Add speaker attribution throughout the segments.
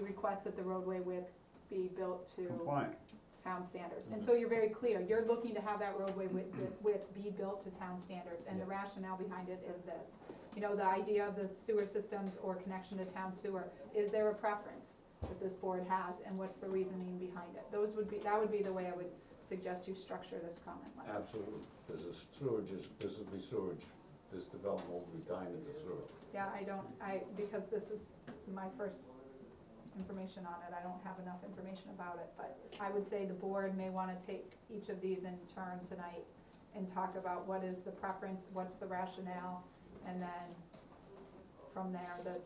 Speaker 1: request that the roadway width be built to
Speaker 2: compliant.
Speaker 1: town standards. And so you're very clear, you're looking to have that roadway width, width be built to town standards, and the
Speaker 3: Yeah.
Speaker 1: rationale behind it is this. You know, the idea of the sewer systems or connection to town sewer, is there a preference that this board has, and what's the reasoning behind it? Those would be, that would be the way I would suggest you structure this comment letter.
Speaker 3: Absolutely, this is sewage, is- this is the sewage, this development will be dying into sewage.
Speaker 1: Yeah, I don't, I, because this is my first information on it, I don't have enough information about it, but I would say the board may wanna take each of these in turn tonight and talk about what is the preference, what's the rationale, and then from there, the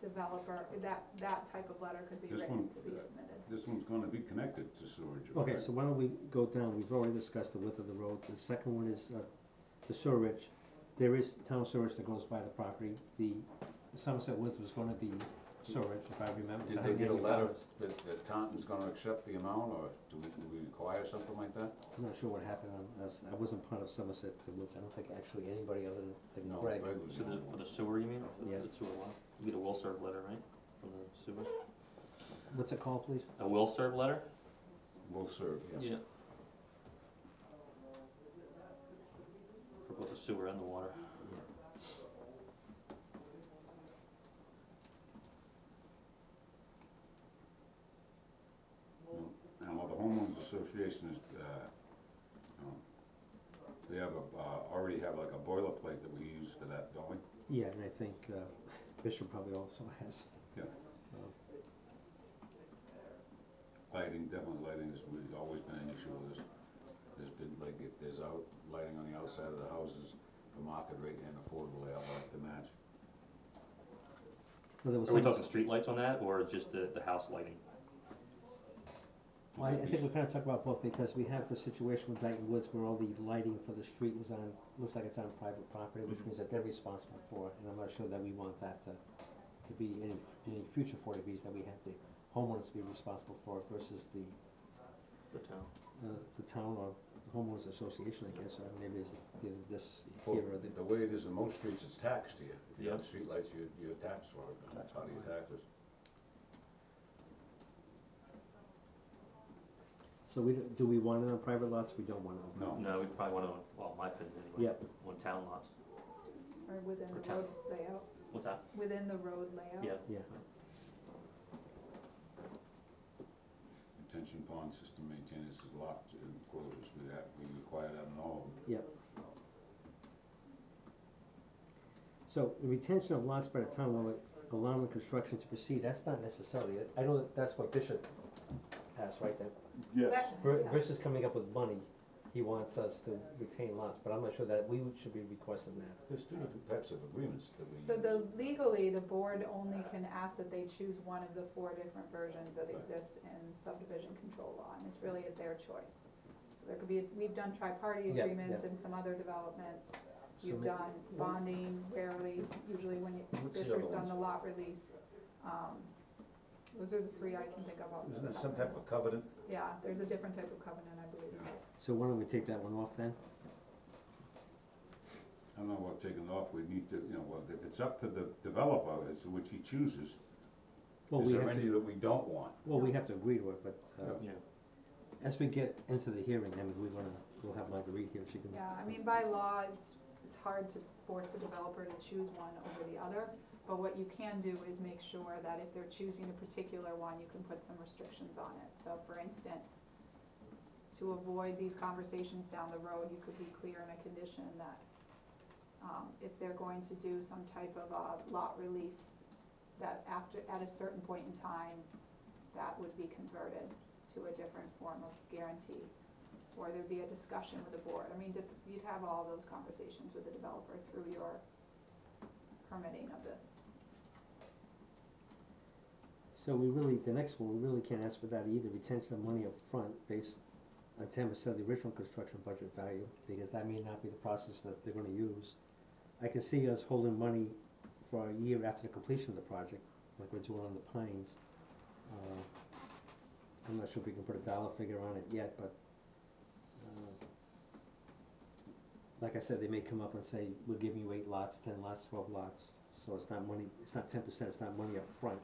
Speaker 1: developer, that, that type of letter could be
Speaker 2: This
Speaker 1: written
Speaker 2: one,
Speaker 1: to be submitted.
Speaker 2: This one's gonna be connected to sewage.
Speaker 4: Okay,
Speaker 2: right?
Speaker 4: so why don't we go down, we've already discussed the width of the road, the second one is, uh, the sewerage. There is town sewerage that goes by the property, the Somerset Woods was gonna be sewerage, if I remember.
Speaker 3: Did they get a letter that, that Taunton's gonna accept the amount, or do we, do we require something like that?
Speaker 4: I'm not sure what happened on, us. I wasn't part of Somerset Woods, I don't think actually anybody other than
Speaker 3: No, Greg
Speaker 4: like Greg.
Speaker 3: was
Speaker 5: So
Speaker 3: the
Speaker 5: the,
Speaker 3: only
Speaker 5: for
Speaker 3: one.
Speaker 5: the sewer, you mean, For the-
Speaker 4: Yeah.
Speaker 5: the sewer line? You get a will serve letter, right, from the sewer?
Speaker 4: What's it called, please?
Speaker 5: A will serve letter?
Speaker 3: Will serve, yeah.
Speaker 5: For both the sewer and the water.
Speaker 2: And while the homeowners association is, uh, um, they have a, uh, already have like a boilerplate that we use for that, don't we?
Speaker 4: Yeah, and I think, uh, Bishop probably also has.
Speaker 2: Yeah.
Speaker 4: Uh,
Speaker 2: Lighting, definitely lighting has really always been an issue with us.
Speaker 3: There's been, like, if there's out, lighting on the outside of the houses, the market rate and affordable, they all have to match.
Speaker 4: Well, there was
Speaker 5: Are we
Speaker 4: some-
Speaker 5: talking street lights on that, or is just the, the house lighting?
Speaker 4: Well, I, I think we're kinda talking about both, because we have the situation with Dyton Woods where all the lighting for the street is on, looks like it's on private property, which
Speaker 5: Mhm.
Speaker 4: means that they're responsible for, it, and I'm not sure that we want that to, to be any, any future forty Bs that we have the homeowners be responsible for it versus the,
Speaker 5: The town.
Speaker 4: uh, the town or homeowners association, I guess, or maybe it's either this
Speaker 3: Well,
Speaker 4: here or the,
Speaker 3: The way it is in most streets, it's taxed here. If you have
Speaker 5: Yeah.
Speaker 3: streetlights, you, you're taxed for it, that's
Speaker 5: Taxed
Speaker 3: how do you
Speaker 5: on
Speaker 3: tax it?
Speaker 4: so we, don't- do we want it on private lots, we don't want it on private?
Speaker 2: No,
Speaker 5: No, we probably wanna, own- well, my opinion anyway,
Speaker 4: Yep,
Speaker 5: on town lots.
Speaker 1: Or within
Speaker 5: For
Speaker 1: the
Speaker 5: town.
Speaker 1: road layout,
Speaker 5: What's that?
Speaker 1: within the road layout.
Speaker 5: Yeah,
Speaker 4: yeah,
Speaker 2: Detention pond system maintenance is locked and closed with that, we require that in all of them.
Speaker 4: so the retention of lots by the town while allowing construction to proceed, that's not necessarily, I know that that's what Bishop asked, right, that
Speaker 1: That-
Speaker 4: Ver-
Speaker 1: yeah.
Speaker 4: Versus coming up with money, he wants us to retain lots, but I'm not sure that we would- should be requesting that.
Speaker 3: There's two different types of agreements that we use.
Speaker 1: So the legally, the board only can ask that they choose one of the four different versions that exist in subdivision control law, and it's really at their choice. So There could be, we've done tri-party
Speaker 4: Yeah,
Speaker 1: agreements
Speaker 4: yeah.
Speaker 1: and some other developments,
Speaker 4: So
Speaker 1: you've
Speaker 4: ma-
Speaker 1: done bonding rarely, usually when you,
Speaker 3: What's the other
Speaker 1: Fisher's done
Speaker 3: ones?
Speaker 1: the lot release. Um, those are the three I can think of off the
Speaker 3: Isn't there
Speaker 1: top
Speaker 3: some
Speaker 1: of my
Speaker 3: type of covenant?
Speaker 1: head. Yeah, there's a different type of covenant, I believe.
Speaker 2: Yeah.
Speaker 4: So why don't we take that one off then?
Speaker 2: I don't know what taking it off, we need to, you know, well, if it's up to the developer, it's which he chooses.
Speaker 4: Well,
Speaker 2: Is
Speaker 4: we
Speaker 2: there
Speaker 4: have
Speaker 2: any
Speaker 4: to,
Speaker 2: that we don't want?
Speaker 4: well, we have to agree to it, but, uh,
Speaker 5: yeah.
Speaker 4: as we get into the hearing, I mean, we wanna, we'll have Marguerite here, she can.
Speaker 1: Yeah, I mean, by law, it's, it's hard to force a developer to choose one over the other, but what you can do is make sure that if they're choosing a particular one, you can put some restrictions on it. So for instance, to avoid these conversations down the road, you could be clear in a condition that, um, if they're going to do some type of a lot release, that after, at a certain point in time, that would be converted to a different form of guarantee or there'd be a discussion with the board. I mean, dep- you'd have all those conversations with the developer through your permitting of this.
Speaker 4: So we really, the next one, we really can't ask for that either, retention of money up front based on ten percent of the original construction budget value, because that may not be the process that they're gonna use. I can see us holding money for a year after the completion of the project, like we're doing on the pines. Uh, I'm not sure if we can put a dollar figure on it yet, but, uh, like I said, they may come up and say, we're giving you eight lots, ten lots, twelve lots, so it's not money, it's not ten percent, it's not money up front